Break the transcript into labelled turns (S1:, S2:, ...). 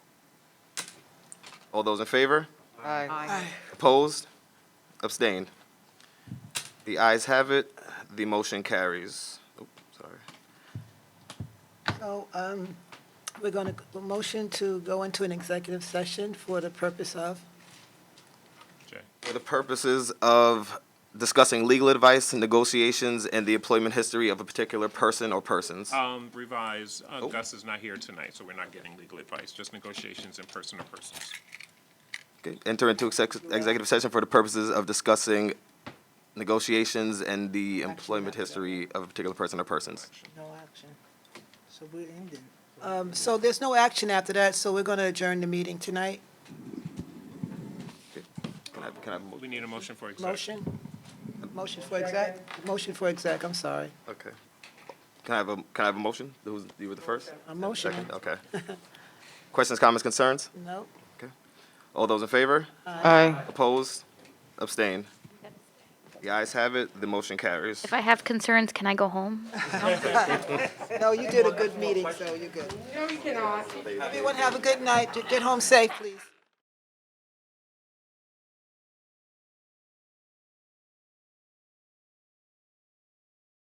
S1: All those in favor?
S2: Aye.
S1: Opposed? Abstained? The ayes have it, the motion carries. Oop, sorry.
S3: So um, we're going to, motion to go into an executive session for the purpose of,
S1: For the purposes of discussing legal advice, negotiations, and the employment history of a particular person or persons.
S4: Um, revise, uh,
S1: Oh.
S4: Gus is not here tonight, so we're not getting legal advice, just negotiations in person to persons.
S1: Okay, Enter into exec- executive session for the purposes of discussing negotiations and the employment history of a particular person or persons.
S2: No action. So we're ending.
S3: um, so there's no action after that, so we're going to adjourn the meeting tonight.
S1: Can I, have- can I, have a mo-
S4: We need a motion for exec.
S3: Motion? Motion for exec? Motion for exec, I'm sorry.
S1: okay. Can I have a, can I have a motion? Who's, you were the first?
S3: A motion?
S1: Second, okay. Questions, comments, concerns?
S3: Nope.
S1: All those in favor?
S2: Aye.
S1: Opposed? Abstained? The ayes have it, the motion carries.
S5: If I have concerns, can I go home?
S3: No, you did a good meeting, so you're good. No, you cannot. Everyone have a good night. Get home safe, please.